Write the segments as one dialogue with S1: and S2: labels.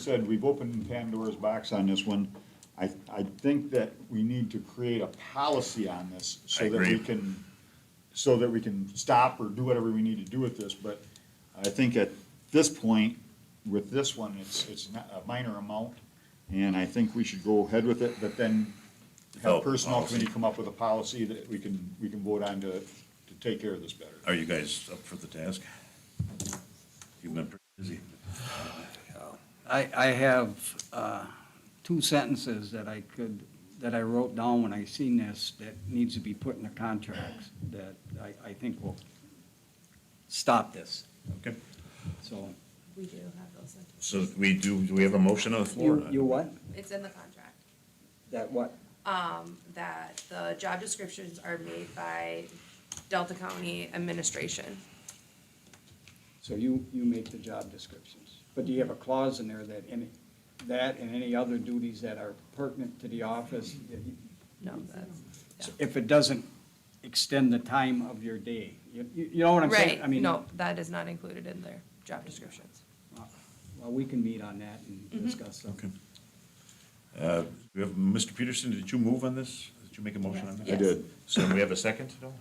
S1: said, we've opened Pandora's box on this one. I, I think that we need to create a policy on this so
S2: I
S1: that we
S2: agree.
S1: can, so that we can stop or do whatever we need to do with this. But I think at this point, with this one, it's, it's not a minor amount, and I think we should go ahead with it, but then have
S2: Develop a
S1: personnel
S2: policy.
S1: committee come up with a policy that we can, we can vote on to, to take care of this better.
S2: Are you guys up for the task? You've been pretty busy.
S3: I, I have uh, two sentences that I could, that I wrote down when I seen this that needs to be put in the contracts that I, I think will stop this,
S2: Okay,
S3: so.
S4: We do have those. in-
S2: so we do, do we have a motion on the floor?
S3: You, you what?
S4: It's in the contract,
S3: That what?
S4: that the job descriptions are made by Delta County Administration.
S3: So you, you make the job descriptions. But do you have a clause in there that any, that and any other duties that are pertinent to the office? that you-
S4: No, that's, yeah.
S3: If it doesn't extend the time of your day, you, you you know what I'm saying? I
S4: Right,
S3: mean,
S4: no, that is not included in their job descriptions.
S3: Uh, Well, we can meet on that and discuss them.
S2: Okay. Uh, We have, Mr. Peterson, did you move on this? Did you make a motion on this?
S4: Yes. I did.
S2: So we have a second, no?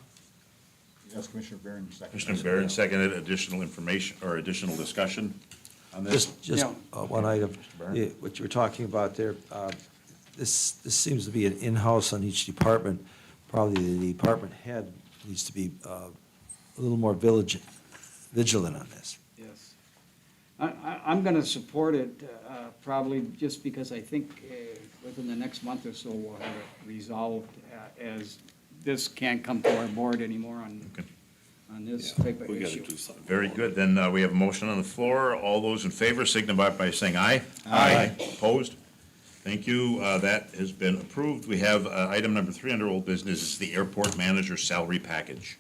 S1: Yes, Commissioner Barron, second.
S2: Commissioner Barron seconded additional information or additional discussion on this?
S5: Just, just
S3: Yeah.
S5: uh, one item,
S2: Byrne?
S5: Yeah, what you were talking about there, uh, this, this seems to be an in-house on each department. Probably the department head needs to be uh, a little more vigilant, vigilant on this.
S3: Yes. I, I, I'm gonna support it, uh, probably just because I think, uh, within the next month or so, we'll have it resolved, uh, as this can't come to our board anymore on,
S2: Okay.
S3: on this type of issue.
S2: Very good, then uh, we have a motion on the floor. All those in favor signify by saying aye. Aye. Opposed? Thank you, Uh, that has been approved. We have uh, item number three under old business, is the airport manager salary package.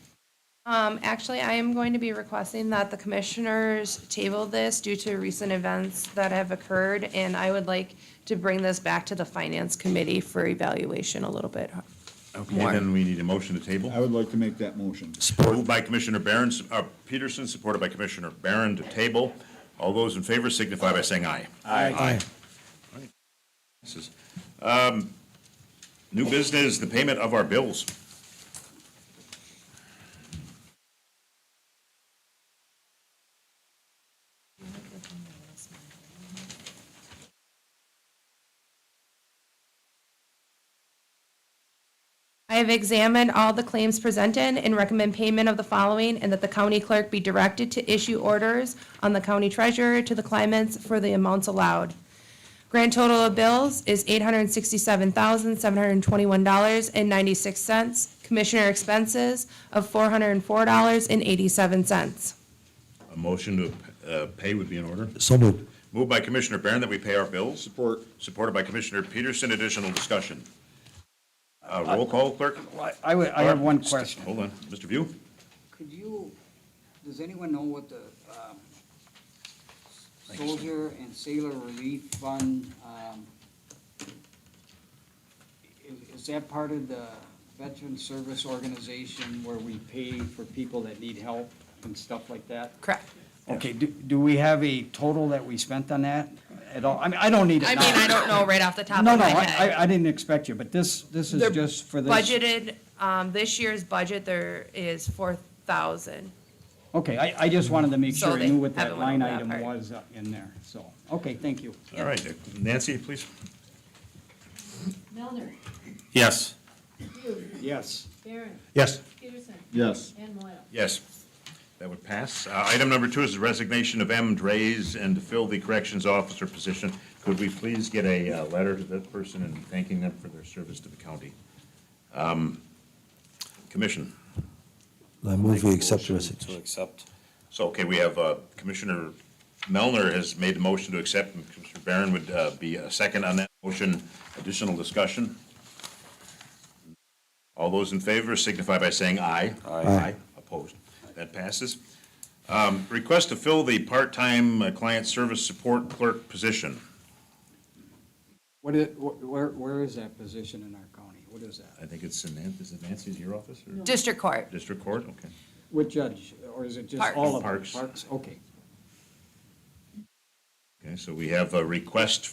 S4: Um, actually, I am going to be requesting that the commissioners table this due to recent events that have occurred, and I would like to bring this back to the finance committee for evaluation a little bit
S2: Okay,
S4: more.
S2: then we need a motion to table.
S1: I would like to make that motion.
S2: Moved by Commissioner Barron, uh, Peterson, supported by Commissioner Barron to table. All those in favor signify by saying aye.
S5: Aye.
S2: This is, um, New business, the payment of our bills.
S4: I have examined all the claims presented and recommend payment of the following, and that the county clerk be directed to issue orders on the county treasurer to the claimants for the amounts allowed. Grand total of bills is eight hundred and sixty-seven thousand, seven hundred and twenty-one dollars and ninety-six cents. Commissioner expenses of four hundred and four dollars and eighty-seven cents.
S2: A motion to uh, pay would be in order.
S5: So moved.
S2: Moved by Commissioner Barron that we pay our bills.
S1: Support.
S2: Supported by Commissioner Peterson. Additional discussion. Uh, Roll call, clerk.
S3: Well, I, I would- I have one
S2: St-
S3: question.
S2: Hold on. Mr. View?
S3: Could you, does anyone know what the, um, Soldier and Sailor Relief Fund, um, is, is that part of the Veteran Service Organization where we pay for people that need help and stuff like that?
S4: Correct.
S3: Okay, do, do we have a total that we spent on that at all? I mean, I don't need it
S4: I
S3: now.
S4: mean, I don't know right off the top of
S3: No,
S4: my
S3: no,
S4: head.
S3: I, I- I didn't expect you, but this, this is
S4: They're
S3: just for this.
S4: Budgeted, um, this year's budget, there is four thousand.
S3: Okay, I, I just wanted to make
S4: So
S3: sure I
S4: they
S3: knew what that
S4: haven't went
S3: line
S4: over that
S3: item
S4: part.
S3: was uh, in there, so, okay, thank you.
S2: All right. Nancy, please.
S6: Melner,
S2: Yes.
S6: Hugh,
S3: Yes.
S6: Barron,
S2: Yes.
S6: Peterson,
S1: Yes.
S6: and Moyle.
S2: Yes. That would pass. Uh, Item number two is the resignation of M. Drays and to fill the corrections officer position. Could we please get a uh, letter to that person and thanking them for their service to the county? Um, Commission.
S5: I move we accept the resignation.
S7: accept.
S2: So, okay, we have uh, Commissioner Melner has made the motion to accept, and Commissioner Barron would uh, be a second on that motion. Additional discussion? All those in favor signify by saying aye. Aye. Opposed? That passes. Um, Request to fill the part-time uh, client service support clerk position.
S3: What is, wh- where, where is that position in our county? What is that?
S2: I think it's in Nan- is it Nancy's, your office, or
S4: District Court.
S2: district court? Okay.
S3: What judge, or is it just all of them?
S2: Parks.
S3: Parks, okay.
S2: Okay. Okay, so we have a request